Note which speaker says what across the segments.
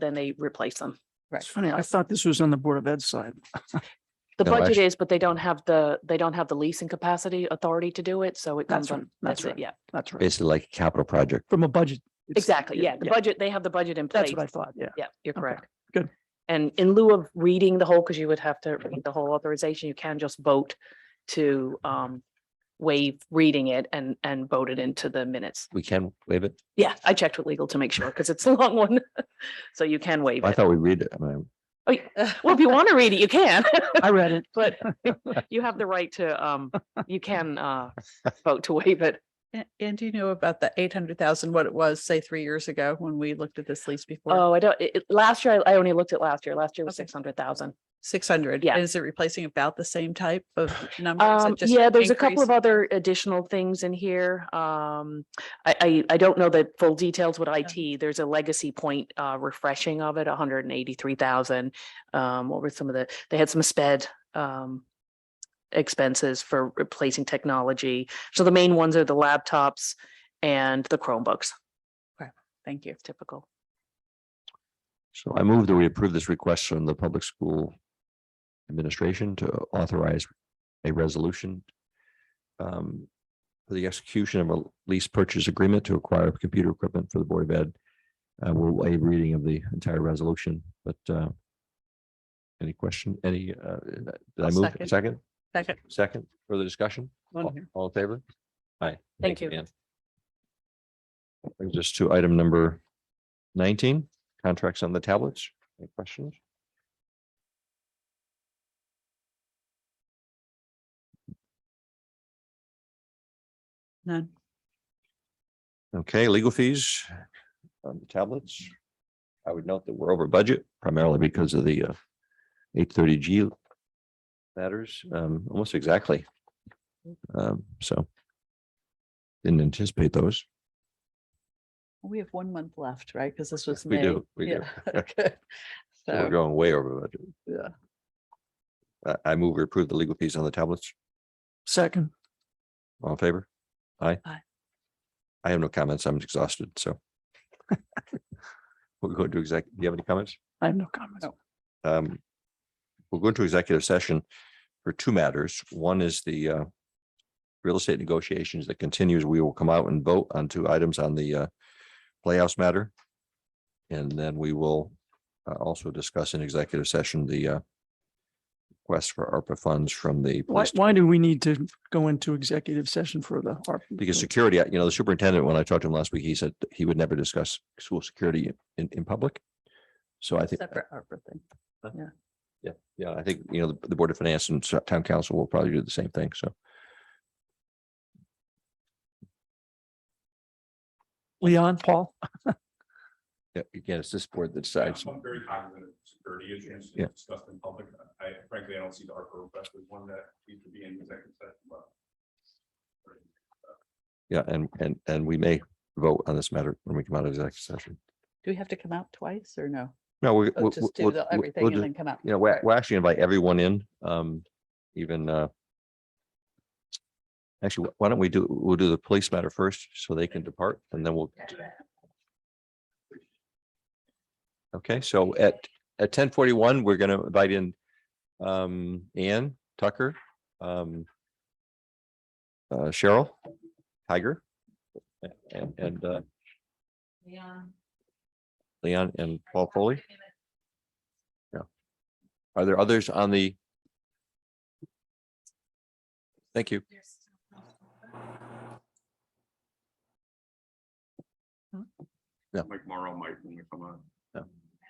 Speaker 1: then they replace them.
Speaker 2: It's funny, I thought this was on the Board of Ed side.
Speaker 1: The
Speaker 3: No,
Speaker 1: budget
Speaker 3: actu-
Speaker 1: is, but they don't have the, they don't have the leasing capacity authority to do it, so it
Speaker 2: That's
Speaker 1: comes
Speaker 2: right,
Speaker 1: on,
Speaker 2: that's
Speaker 1: that's it,
Speaker 2: right.
Speaker 1: yeah.
Speaker 2: That's right.
Speaker 3: basically like a capital project.
Speaker 2: From a budget. it's-
Speaker 1: Exactly, yeah, the budget, they have the budget in place.
Speaker 2: That's what I thought, yeah.
Speaker 1: Yeah, you're
Speaker 2: Okay,
Speaker 1: correct.
Speaker 2: good.
Speaker 1: And in lieu of reading the whole, because you would have to read the whole authorization, you can just vote to um waive reading it and and vote it into the minutes.
Speaker 3: We can waive it.
Speaker 1: Yeah, I checked with legal to make sure, because it's a long one. So you can waive
Speaker 3: I
Speaker 1: it.
Speaker 3: thought we read it. I mean,
Speaker 1: Oh, y- Well, if you want to read it, you can.
Speaker 2: I read it.
Speaker 1: But you have the right to, um, you can uh vote to waive it.
Speaker 4: A- And do you know about the eight hundred thousand, what it was, say, three years ago when we looked at this lease before?
Speaker 1: Oh, I don't, it, it- last year, I I only looked at last year. Last year was
Speaker 4: Okay.
Speaker 1: six hundred thousand.
Speaker 4: Six hundred?
Speaker 1: yeah.
Speaker 4: Is it replacing about the same type of numbers?
Speaker 1: Um, yeah, there's a couple of other additional things in here. Um, I, I, I don't know the full details with IT. There's a legacy point, uh, refreshing of it, hundred and eighty-three thousand. Um, what were some of the, they had some sped, um, expenses for replacing technology. So the main ones are the laptops and the Chromebooks,
Speaker 4: Thank you.
Speaker 1: typical.
Speaker 3: so I move that we approve this request from the public school administration to authorize a resolution um, for the execution of a lease purchase agreement to acquire computer equipment for the Board of Ed. Uh, we'll waive reading of the entire resolution, but uh, any question, any, uh, did I
Speaker 4: I'll
Speaker 3: move
Speaker 4: second.
Speaker 3: second?
Speaker 4: Second.
Speaker 3: Second, further discussion?
Speaker 2: On
Speaker 3: All-
Speaker 2: here.
Speaker 3: All in favor? Aye.
Speaker 1: Thank you.
Speaker 3: Ann. Brings us to item number nineteen, contracts on the tablets. Any questions?
Speaker 4: None.
Speaker 3: Okay, legal fees on the tablets. I would note that we're over budget primarily because of the uh, eight thirty G matters, um, almost exactly. Um, so didn't anticipate those.
Speaker 4: We have one month left, right? Because this was
Speaker 3: We
Speaker 4: May.
Speaker 3: do, we do.
Speaker 4: Yeah. Okay.
Speaker 3: We're
Speaker 4: So,
Speaker 3: going way over budget.
Speaker 4: yeah.
Speaker 3: I, I move we approve the legal fees on the tablets.
Speaker 2: Second,
Speaker 3: All in favor? Aye.
Speaker 4: Aye.
Speaker 3: I have no comments. I'm exhausted, so. We're going to exec, do you have any comments?
Speaker 2: I have no comments.
Speaker 4: No.
Speaker 3: Um, We'll go into executive session for two matters. One is the uh. Real estate negotiations that continues. We will come out and vote on two items on the uh Playhouse matter. And then we will uh, also discuss in executive session the uh. Request for ARPA funds from the.
Speaker 2: Why,
Speaker 3: police
Speaker 2: why do we need to go into executive session for the ARP?
Speaker 3: Because security, you know, the superintendent, when I talked to him last week, he said he would never discuss school security in, in public. So I think,
Speaker 4: Separate ARPA thing.
Speaker 3: yeah, I think, you know, the- the Board of Finance and so- Town Council will probably do the same thing, so.
Speaker 2: Leon, Paul,
Speaker 3: yeah, Again, it's this board that decides.
Speaker 5: I'm very cognizant of security issues
Speaker 3: Yeah.
Speaker 5: discussed in public. I frankly, I don't see the ARPA request as one that needs to be in executive session, but.
Speaker 3: Yeah, and, and, and we may vote on this matter when we come out of executive session.
Speaker 4: Do we have to come out twice or no?
Speaker 3: No, we.
Speaker 4: Oh,
Speaker 3: we'll-
Speaker 4: Just do
Speaker 3: we'll-
Speaker 4: the-
Speaker 3: we'll-
Speaker 4: everything
Speaker 3: we'll
Speaker 4: and
Speaker 3: just-
Speaker 4: then come out.
Speaker 3: You know, we're,
Speaker 4: Right.
Speaker 3: we're actually invite everyone in, um, even, uh. Actually, why don't we do, we'll do the police matter first so they can depart and then we'll Okay, so at, at ten forty-one, we're gonna invite in, um, Ann Tucker, um, uh, Cheryl, Tiger, and, and, uh, Leon and Paul Foley. Yeah. Are there others on the? Thank you.
Speaker 5: Mike Morrow might when we come on.
Speaker 6: I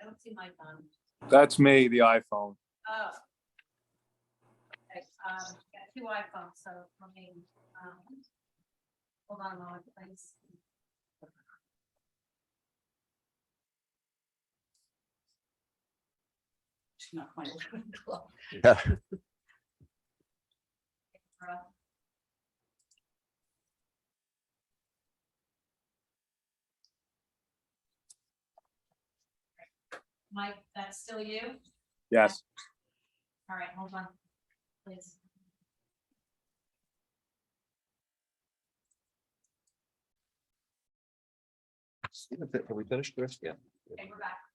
Speaker 6: don't see Mike on.
Speaker 7: That's me, the iPhone.
Speaker 6: Oh. Okay, um, got two iPhones, so let me, um, hold on a moment, please.
Speaker 4: It's not quite 11 o'clock.
Speaker 3: Yeah.
Speaker 6: Mike, that's still you?
Speaker 7: Yes.
Speaker 6: All right, hold on, please.
Speaker 3: Have we finished the rest? Yeah.
Speaker 6: Okay, we're back.